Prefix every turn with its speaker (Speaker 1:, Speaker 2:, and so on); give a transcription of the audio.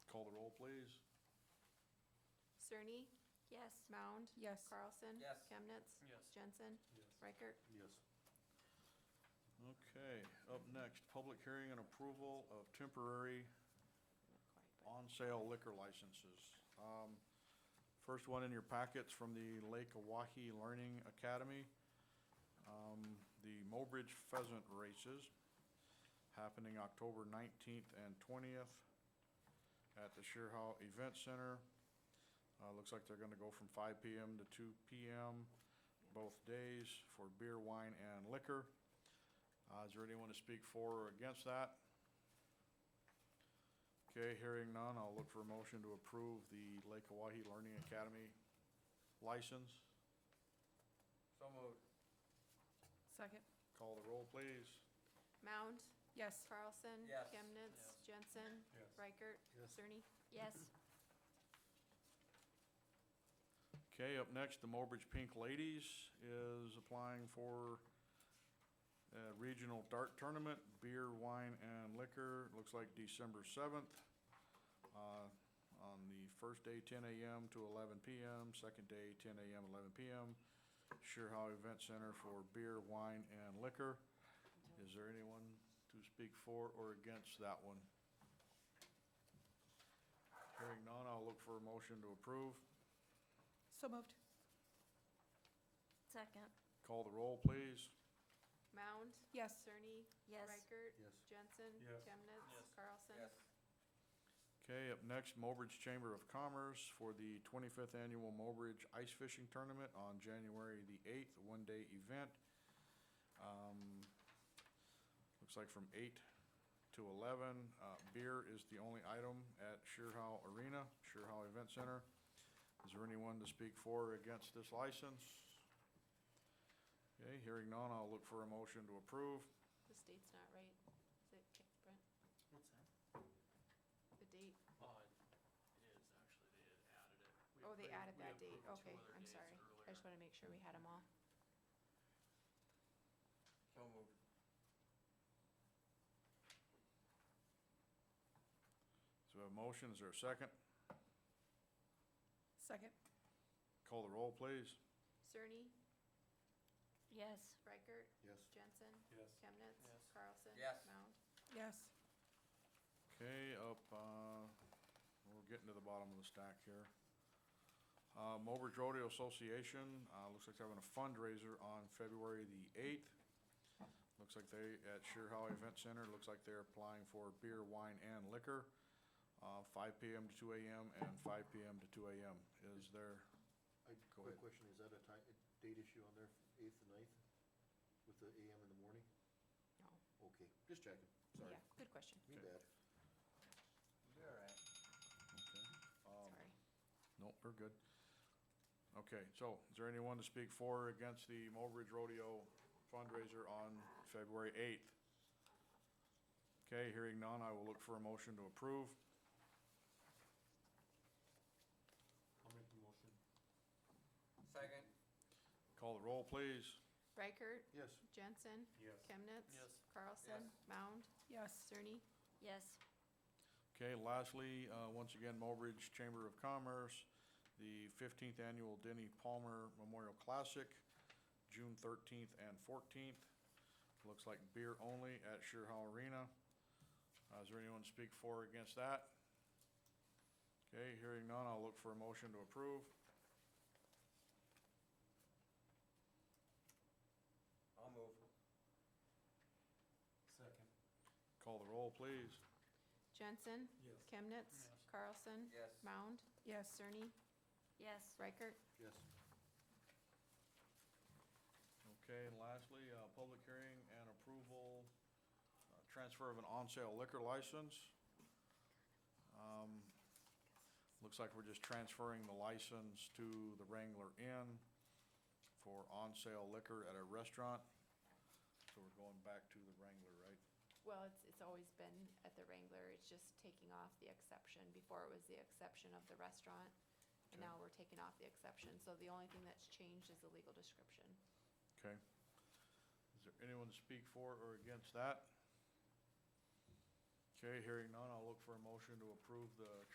Speaker 1: please.
Speaker 2: Cerny? Yes. Mound?
Speaker 3: Yes.
Speaker 2: Carlson?
Speaker 4: Yes.
Speaker 2: Chemnitz?
Speaker 5: Yes.
Speaker 2: Jensen? Reichert?
Speaker 1: Yes. Okay, up next, public hearing and approval of temporary on-sale liquor licenses. Um, First one in your packets from the Lake Oahe Learning Academy. Um, The Mobridge Pheasant Races happening October 19th and 20th at the Sheerhow Event Center. Uh, Looks like they're going to go from 5 PM to 2 PM both days for beer, wine, and liquor. Uh, Is there anyone to speak for or against that? Okay, hearing none, I'll look for a motion to approve the Lake Oahe Learning Academy license.
Speaker 4: So moved.
Speaker 3: Second.
Speaker 1: Call the roll, please.
Speaker 2: Mound?
Speaker 3: Yes.
Speaker 2: Carlson?
Speaker 4: Yes.
Speaker 2: Chemnitz? Jensen? Reichert? Cerny? Yes.
Speaker 1: Okay, up next, the Mobridge Pink Ladies is applying for a regional dart tournament, beer, wine, and liquor. Looks like December seventh, uh, on the first day, ten AM to eleven PM, second day, ten AM, eleven PM. Sheerhow Event Center for beer, wine, and liquor. Is there anyone to speak for or against that one? Hearing none, I'll look for a motion to approve.
Speaker 3: So moved.
Speaker 6: Second.
Speaker 1: Call the roll, please.
Speaker 2: Mound?
Speaker 3: Yes.
Speaker 2: Cerny?
Speaker 6: Yes.
Speaker 2: Reichert? Jensen?
Speaker 5: Yes.
Speaker 2: Chemnitz?
Speaker 5: Yes.
Speaker 2: Carlson?
Speaker 4: Yes.
Speaker 1: Okay, up next, Mobridge Chamber of Commerce for the 25th Annual Mobridge Ice Fishing Tournament on January the 8th, a one-day event. Um, Looks like from 8 to 11. Uh, Beer is the only item at Sheerhow Arena, Sheerhow Event Center. Is there anyone to speak for or against this license? Okay, hearing none, I'll look for a motion to approve.
Speaker 2: The date's not right. Is it, okay, Brent?
Speaker 4: What's that?
Speaker 2: The date?
Speaker 5: Uh, it is, actually, they had added it. We
Speaker 2: Oh, they
Speaker 5: approved-
Speaker 2: added
Speaker 5: we
Speaker 2: that date.
Speaker 5: approved two
Speaker 2: Okay,
Speaker 5: other
Speaker 2: I'm
Speaker 5: dates
Speaker 2: sorry. I
Speaker 5: earlier.
Speaker 2: just want to make sure we had them all.
Speaker 4: So moved.
Speaker 1: So we have a motion, is there a second?
Speaker 3: Second.
Speaker 1: Call the roll, please.
Speaker 2: Cerny?
Speaker 6: Yes.
Speaker 2: Reichert?
Speaker 1: Yes.
Speaker 2: Jensen?
Speaker 5: Yes.
Speaker 2: Chemnitz?
Speaker 5: Yes.
Speaker 2: Carlson?
Speaker 4: Yes.
Speaker 2: Mound?
Speaker 3: Yes.
Speaker 1: Okay, up, uh, we're getting to the bottom of the stack here. Uh, Mobridge Rodeo Association, uh, looks like they're having a fundraiser on February the eighth. Looks like they, at Sheerhow Event Center, looks like they're applying for beer, wine, and liquor, uh, five PM to two AM and five PM to two AM. Is there,
Speaker 7: I,
Speaker 1: Go
Speaker 7: quick
Speaker 1: ahead.
Speaker 7: question, is that a ti- a date issue on there, eighth and ninth, with the AM in the morning?
Speaker 2: No.
Speaker 7: Okay, just checking, sorry,
Speaker 2: Yeah, good question.
Speaker 7: me
Speaker 1: Okay.
Speaker 7: bad.
Speaker 4: You're all
Speaker 1: um,
Speaker 4: right.
Speaker 2: Sorry.
Speaker 1: no, we're good. Okay, so is there anyone to speak for or against the Mobridge Rodeo fundraiser on February 8th? Okay, hearing none, I will look for a motion to approve.
Speaker 5: I'll make the motion.
Speaker 4: Second.
Speaker 1: Call the roll, please.
Speaker 2: Reichert?
Speaker 7: Yes,
Speaker 2: Jensen?
Speaker 5: Yes.
Speaker 2: Chemnitz?
Speaker 5: Yes.
Speaker 2: Carlson? Mound?
Speaker 3: Yes.
Speaker 2: Cerny?
Speaker 6: Yes.
Speaker 1: Okay, lastly, uh, once again, Mobridge Chamber of Commerce, the 15th Annual Denny Palmer Memorial Classic, June 13th and 14th. Looks like beer only at Sheerhow Arena. Uh, Is there anyone to speak for or against that? Okay, hearing none, I'll look for a motion to approve.
Speaker 4: I'll move.
Speaker 5: Second.
Speaker 1: Call the roll, please.
Speaker 2: Jensen?
Speaker 5: Yes.
Speaker 2: Chemnitz?
Speaker 5: Yes.
Speaker 2: Carlson?
Speaker 4: Yes.
Speaker 2: Mound?
Speaker 3: Yes.
Speaker 2: Cerny?
Speaker 6: Yes.
Speaker 2: Reichert?
Speaker 7: yes,
Speaker 1: Okay, and lastly, uh, public hearing and approval, uh, transfer of an on-sale liquor license. Um, Looks like we're just transferring the license to the Wrangler Inn for on-sale liquor at a restaurant. So we're going back to the Wrangler, right?
Speaker 2: Well, it's, it's always been at the Wrangler. It's just taking off the exception. Before it was the exception of the restaurant. And
Speaker 1: Okay.
Speaker 2: now we're taking off the exception. So the only thing that's changed is the legal description.
Speaker 1: Okay. Is there anyone to speak for or against that? Okay, hearing none, I'll look for a motion to approve the